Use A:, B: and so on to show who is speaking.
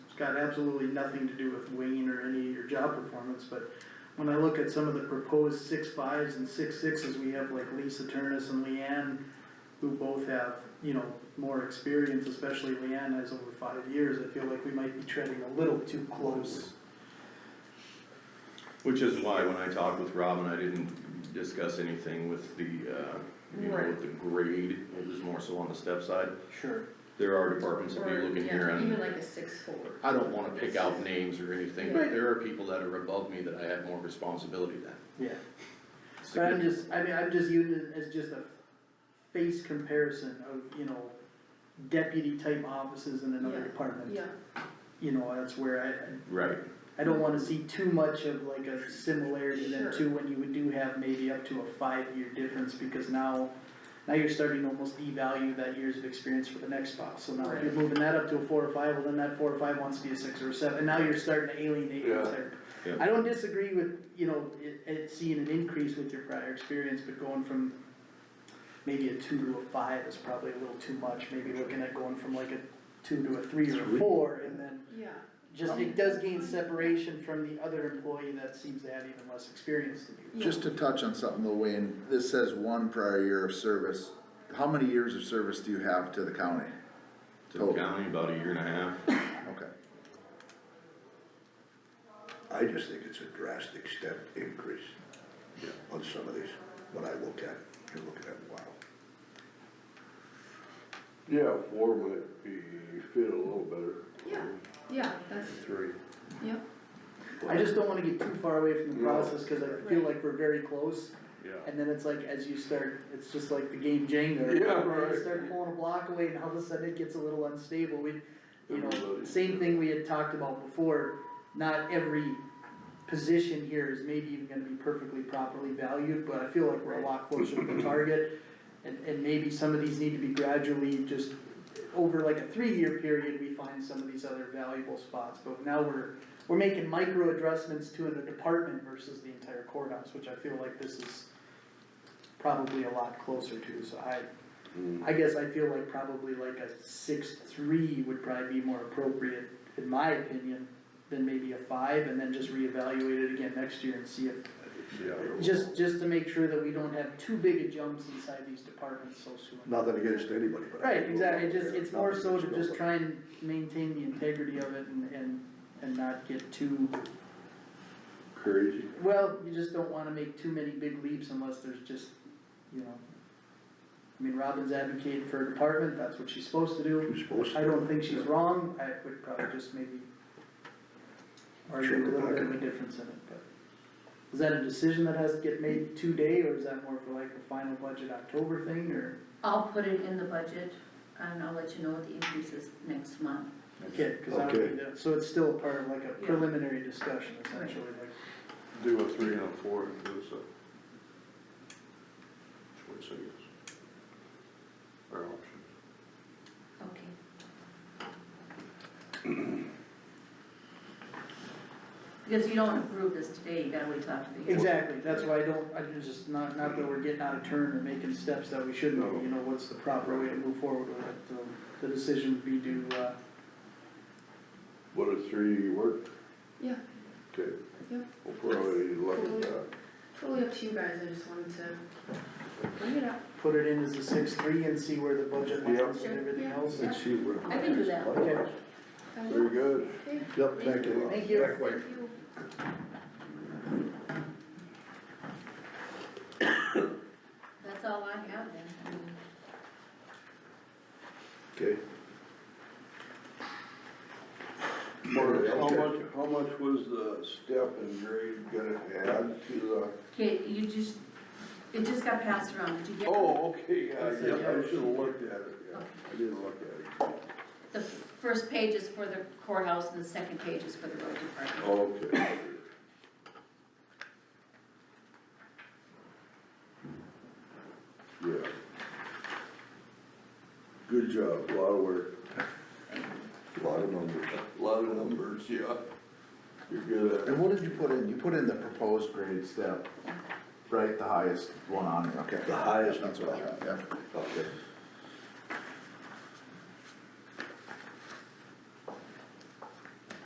A: got absolutely nothing to do with winging or any of your job performance, but when I look at some of the proposed six fives and six sixes, we have like Lisa Turnus and Leanne, who both have, you know, more experience, especially Leanne has over five years, I feel like we might be treading a little too close.
B: Which is why when I talked with Robin, I didn't discuss anything with the, uh, you know,
C: Right.
B: with the grade, it was more so on the step side.
A: Sure.
B: There are departments, if
C: Or,
B: you look in
C: yeah,
B: here,
C: Even
B: and
C: like a six four.
B: I don't wanna pick out names or anything, but
A: Right.
B: there are people that are above me that I have more responsibility than.
A: Yeah. But I'm just, I mean, I'm just using it as just a face comparison of, you know, deputy type offices in another
C: Yeah,
A: department.
C: Yeah,
A: You know, that's where
B: Right,
A: I, I don't wanna see too much of like a similarity then
C: Sure.
A: too, when you would do have maybe up to a five-year difference, because now, now you're starting to almost devalue that years of experience for the next spouse, so now if you're
C: Right.
A: moving that up to a four or five, well, then that four or five wants to be a six or a seven, and now you're starting to alienate
D: Yeah.
A: what's there.
B: Yeah.
A: I don't disagree with, you know, it, it seeing an increase with your prior experience, but going from maybe a two to a five is probably a little too much, maybe looking at going from like a two to a three or a
B: Three.
A: four, and then
C: yeah,
A: just, it does gain separation from the other employee that seems to have even less experience than you.
C: yeah.
E: Just to touch on something, though, Wayne, this says one prior year of service. How many years of service do you have to the county?
B: to the
A: Oh.
E: Total.
B: county, about a year and a half,
E: Okay.
D: I just think it's a drastic step increase on some of these, when I look at, it, you're looking at, wow.
F: Yeah, four might be fit a little better.
C: Yeah, yeah, that's,
F: Three.
C: yeah,
A: I just don't wanna get too far away from the
F: No.
A: process, cause I feel like we're very close,
F: Yeah.
A: and then it's like, as you start, it's just like the game Jenga.
F: Yeah,
A: where
F: right.
A: You start pulling a block away, and all of a sudden it gets a little unstable, we, you know,
F: Everybody.
A: same thing we had talked about before, not every position here is maybe even gonna be perfectly properly valued, but I feel like we're a lot closer to the target. And, and maybe some of these need to be gradually just, over like a three-year period, we find some of these other valuable spots, but now we're, we're making micro adjustments to the department versus the entire courthouse, which I feel like this is probably a lot closer to, so I, I guess I feel like probably like a six, three would probably be more appropriate, in my opinion, than maybe a five, and then just reevaluate it again next year and see if, just, just to make sure that we don't have too big a jumps inside these departments so soon.
D: Nothing against anybody, but. I
A: Right,
D: think-
A: exactly, It just, it's more
D: Nothing
A: so to
D: against nobody.
A: just try and maintain the integrity of it and, and, and not get too,
F: Crazy.
A: well, you just don't wanna make too many big leaps unless there's just, you know. I mean, Robin's advocating for a department, that's what she's supposed to do.
D: You're supposed to.
A: I don't think she's wrong, I would probably just maybe argue a little bit of a difference in it, but. Is that a decision that has to get made today, or is that more for like a final budget October thing, or?
G: I'll put it in the budget, and I'll let you know what the increase is next month.
A: Okay, cause I
D: Okay.
A: would be, so it's still part of like a
G: Yeah.
A: preliminary discussion essentially, like.
F: Do a three and a four and do so. Choice, I guess. Our options.
G: Okay. Because you don't approve this today, you gotta wait till after the year.
A: Exactly, that's why I don't, I can just, not, not that we're getting out of turn or making steps that we shouldn't, be, you know, what's the proper way to move forward with it, um, the, the decision would be due, uh,
F: What a three work?
C: yeah,
F: Okay.
C: yeah.
F: We'll probably look at that.
C: Totally up to you guys, I just wanted to bring it up.
A: put it in as a six three and see where the budget lines
C: Sure,
A: and everything
C: yeah.
A: else.
D: Let's see where.
G: I can do that.
A: Okay.
F: Very good.
C: Okay,
D: Yep, thank you.
A: Thank you.
D: Back way.
C: thank you.
G: That's all I have then, I mean,
D: Okay,
F: Mark, how much, how much was the step and grade gonna add to
G: okay, you just, it just got passed around, did you
F: the?
G: get?
F: Oh, okay, yeah, I
A: That's it, yeah.
F: should've looked at it, yeah. I didn't look at it.
G: The first page is for the courthouse and the second page is for the road department.
F: Okay. Yeah. Good job, a lot of work,
D: lot of numbers.
F: a lot of numbers, yeah. You're good at it.
E: And what did you put in? You put in the proposed grade step, right, the highest one on there, okay.
D: The highest
E: That's what I have, yeah.
D: Okay.